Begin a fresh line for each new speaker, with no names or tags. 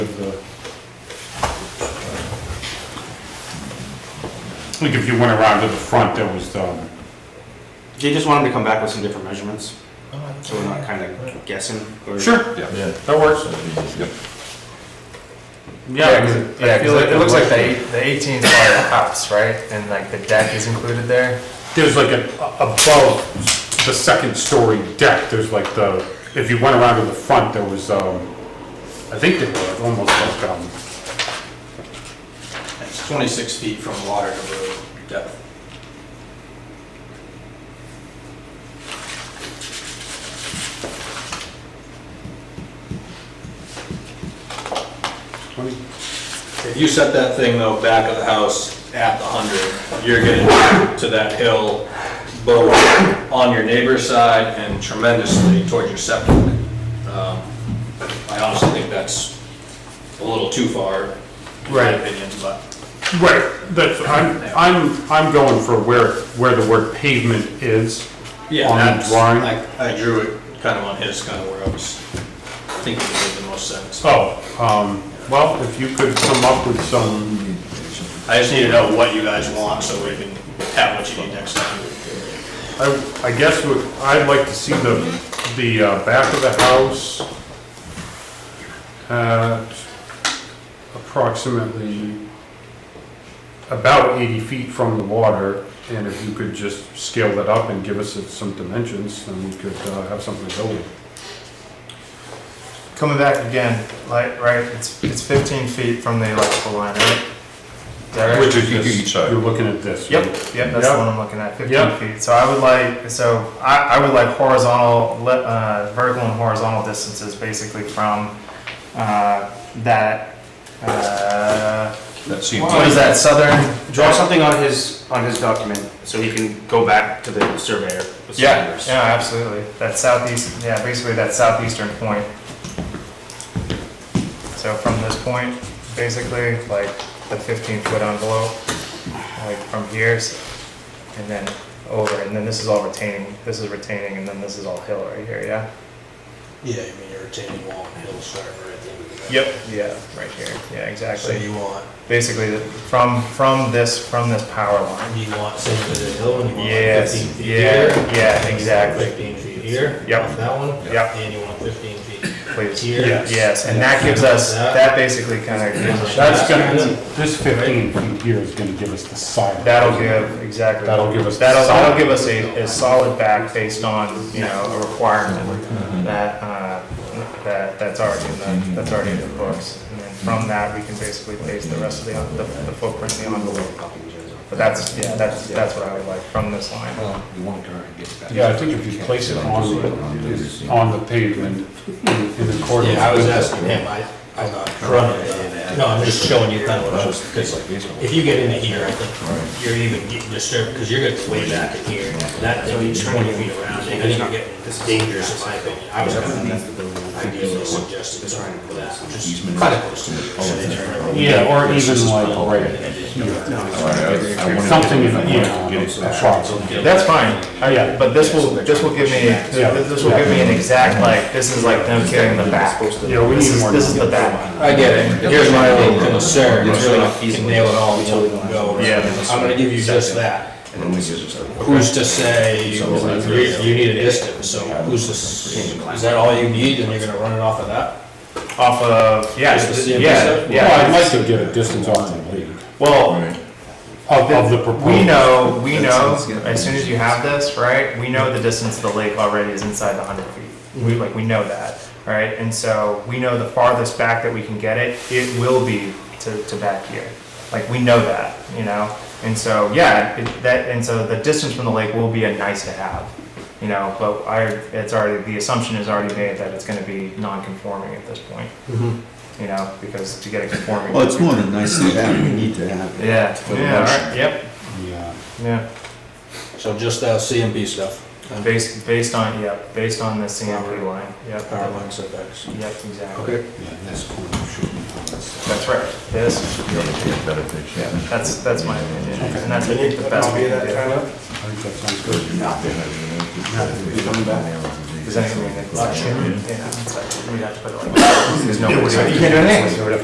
Like if you went around to the front, there was, um,
Do you just want him to come back with some different measurements? So we're not kind of guessing? or-
sure,
Yeah.
Yeah.
that works.
Yep.
Yeah,
Yeah,
'cause it- yeah, 'cause it it looks like the eight- the 18 is part of the house, right? And like the deck is included there?
there's like an, above the second story deck, there's like the, if you went around to the front, there was, um, I think they were like almost like, um,
It's 26 feet from water to road depth.
twenty,
If you set that thing though back of the house at the 100, you're getting to that hill both on your neighbor's side and tremendously toward your septic. Um, I honestly think that's a little too far, in my
Right.
opinion, but.
Right, that's, I'm, I'm, I'm going for where, where the word pavement is on that
that's-
drawing.
I I drew it kind of on his, kind of where I was thinking it made the most sense.
Oh, um, well, if you could come up with some,
I just need to know what you guys want so we can have what you need next time.
I, I guess what, I'd like to see the, the uh, back of the house at approximately about eighty feet from the water, and if you could just scale that up and give us some dimensions, then we could uh, have something to go with.
Coming back again, like, right, it's, it's 15 feet from the electrical line, right? Direct?
Which is each side.
You're looking at this.
Yep,
right?
yep, that's the
Yep.
one I'm looking at,
Yep.
fifteen feet. So I would like, so I, I would like horizontal, le- uh, vertical and horizontal distances basically from, uh, that, uh,
That seems
what is
like,
that, southern?
Draw something on his, on his document, so he can go back to the surveyor. with some
Yeah,
numbers.
yeah, absolutely. That southeast, yeah, basically that southeastern point. So from this point, basically, like the fifteen foot envelope, like from here, s- and then over, and then this is all retaining, this is retaining, and then this is all hill right here, yeah?
Yeah, I mean, you're retaining wall and hill starting right at the end of the
Yeah, right here, yeah,
So
exactly.
you want,
Basically, the- from, from this, from this power line.
you want same bit of hill and you want like
Yes,
fifteen feet
yeah,
here.
yeah, exactly,
Fifteen feet here.
Yep.
off That one.
Yep.
And you want fifteen feet
please.
here.
Yes.
Yes, and that gives us,
That-
that basically kind of gives us.
That's gonna, this fifteen feet here is gonna give us the side.
That'll give, exactly.
That'll give us
That'll,
solid-
that'll give us a, a solid back based on, you know, a
Mm-hmm.
requirement that, uh, that, that's already in the, that's already in the books. And then from that, we can basically base the rest of the, the the footprint, the envelope. But that's, yeah, that's, that's what I would like from this line.
Oh. Yeah, I think if you place it on, the- on the pavement in in accordance.
Yeah, I was
with-
asking him, I, I thought front of it. No, I'm just showing you kind of what I was, because if you get into here, I think you're even getting disturbed, because you're gonna way back in here. That, so you're twenty feet around, and then you're getting, this is dangerous in my opinion. I was kind of ideally suggested trying for that, just kind of close to it. so they turn around.
Yeah, or even like right here,
I- I wanted to-
something in,
I
you
wanted
know,
to get it back.
approximately.
That's fine,
Oh, yeah,
but this will, this will give me, this will give me an exact, like, this is like them carrying the back.
yeah, we
This
need
is,
more.
this is the back.
I get it. Here's my only concern, it's really not feasible. Nail it all, until we go.
Yeah.
I'm gonna give you just that. Who's to say, you you need a distance, so who's to, s- is that all you need and you're gonna run it off of that?
Off of, yeah,
Just the-
yeah,
Well, I'd
yeah.
like to get a distance on the lead
Well,
of, of the proposed.
We know, we know, as soon as you have this, right, we know the distance to the lake already is inside the hundred feet.
Mm-hmm.
We, like, we know that, right? And so we know the farthest back that we can get it, it will be to, to back here. Like, we know that, you know? And so, yeah, it- that, and so the distance from the lake will be a nice to have, you know? But I, it's already, the assumption is already made that it's gonna be non-conforming at this point.
Mm-hmm.
You know, because to get it conforming.
Well, it's more than nice to have, we need to have. it.
Yeah,
For the
yeah, all
motion.
right, yep,
Yeah,
yeah.
So just uh, that CMP stuff,
Based, based on, yep, based on the CMP line, yep.
power line setbacks.
Yep, exactly.
Okay.
yeah, that's cool, shouldn't
That's right. This,
You'll get better picture.
that's, that's my opinion, and that's the best we can
I
of?
do.
think that sounds good.
Does anything? Yeah, it's like, we have to put it like. There's no. You can't do anything.